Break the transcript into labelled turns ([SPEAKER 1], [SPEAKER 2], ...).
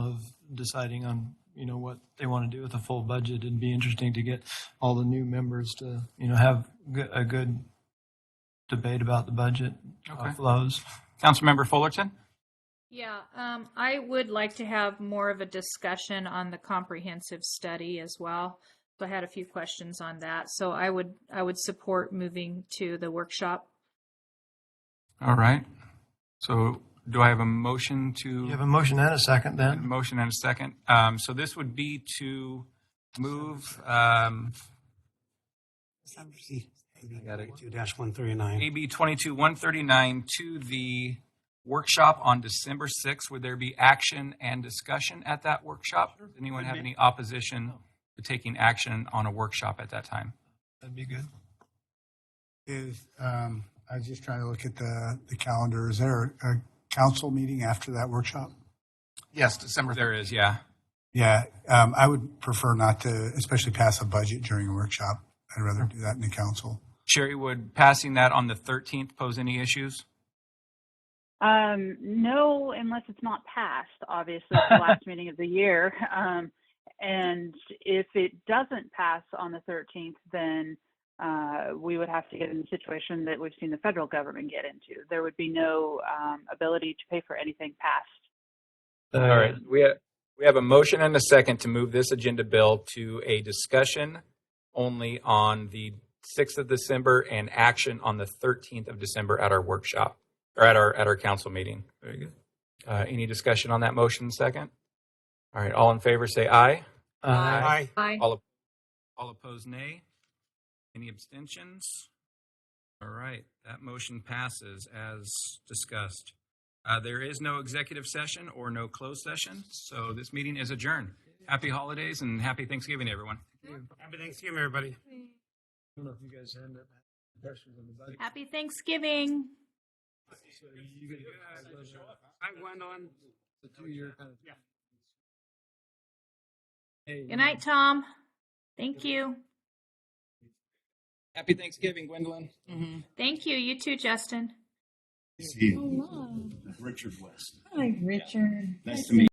[SPEAKER 1] deciding on, you know, what they want to do with a full budget. It'd be interesting to get all the new members to, you know, have go- a good debate about the budget uh,
[SPEAKER 2] Okay.
[SPEAKER 1] flows.
[SPEAKER 2] Councilmember Fullerton?
[SPEAKER 3] Yeah, um, I would like to have more of a discussion on the comprehensive study as well. So I had a few questions on that. So I would, I would support moving to the workshop.
[SPEAKER 2] All right. So do I have a motion
[SPEAKER 1] You have
[SPEAKER 2] to,
[SPEAKER 1] a motion and a second then?
[SPEAKER 2] motion and a second? Um, So this would be to move um,
[SPEAKER 4] Got it. Two dash one thirty-nine.
[SPEAKER 2] AB 22-139 to the workshop on December 6th. Would there be action and discussion at that workshop? Does anyone have any opposition to taking action on a workshop at that time?
[SPEAKER 1] That'd be good.
[SPEAKER 5] Is, um, I was just trying to look at the, the calendar. Is there a council meeting after that workshop?
[SPEAKER 2] Yes, December. There is, yeah.
[SPEAKER 5] Yeah, um, I would prefer not to, especially pass a budget during a workshop. I'd rather do that in the council.
[SPEAKER 2] Sherry, would passing that on the 13th pose any issues?
[SPEAKER 6] Um, no, unless it's not passed, obviously, it's the last meeting of the year. Um, and if it doesn't pass on the 13th, then uh, we would have to get in the situation that we've seen the federal government get into. There would be no um, ability to pay for anything passed
[SPEAKER 2] All right, we have, we have a motion and a second to move this agenda bill to a discussion only on the 6th of December and action on the 13th of December at our workshop, or at our, at our council meeting. Very good. Uh, any discussion on that motion second? All right, all in favor, say aye.
[SPEAKER 1] Uh,
[SPEAKER 2] Aye.
[SPEAKER 3] Aye.
[SPEAKER 2] All, op- all opposed, nay. Any abstentions? All right, that motion passes as discussed. Uh, there is no executive session or no closed session, so this meeting is adjourned. Happy holidays and happy Thanksgiving, everyone.
[SPEAKER 4] Happy Thanksgiving, everybody.
[SPEAKER 1] I don't know if you guys end up having questions on the budget.
[SPEAKER 3] Happy Thanksgiving.
[SPEAKER 4] I went on.
[SPEAKER 1] It's a two-year kind of- Hey,
[SPEAKER 3] Good night, Tom. Thank you.
[SPEAKER 2] Happy Thanksgiving, Gwendolyn.
[SPEAKER 3] Thank you. You too, Justin.
[SPEAKER 7] See you.
[SPEAKER 8] Hello.
[SPEAKER 7] Richard West.
[SPEAKER 8] Hi, Richard.
[SPEAKER 7] Nice to meet you.